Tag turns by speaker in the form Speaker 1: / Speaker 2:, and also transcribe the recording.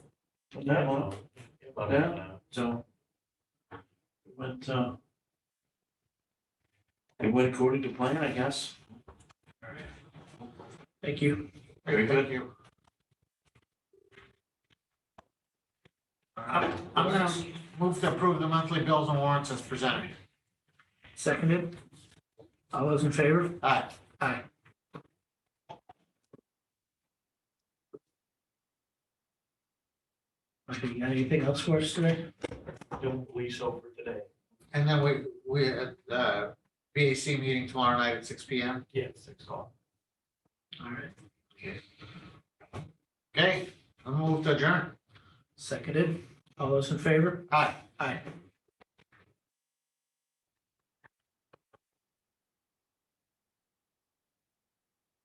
Speaker 1: That one, Yeah. so. it went uh. It went according to plan, I guess.
Speaker 2: Thank you.
Speaker 1: Very good.
Speaker 3: I'm Uh, I'm gonna move to approve the monthly bills and warrants as presented.
Speaker 2: Seconded. All those in favor?
Speaker 3: Aye.
Speaker 2: Aye. Okay, you got anything else for us today?
Speaker 1: Don't lease over today.
Speaker 3: And then we, we, at uh, the BAC meeting tomorrow night at six P M.
Speaker 1: Yeah, six o'clock.
Speaker 2: All right,
Speaker 3: Okay, I'm moved to adjourn.
Speaker 2: seconded. All those in favor?
Speaker 3: Aye.
Speaker 2: Aye.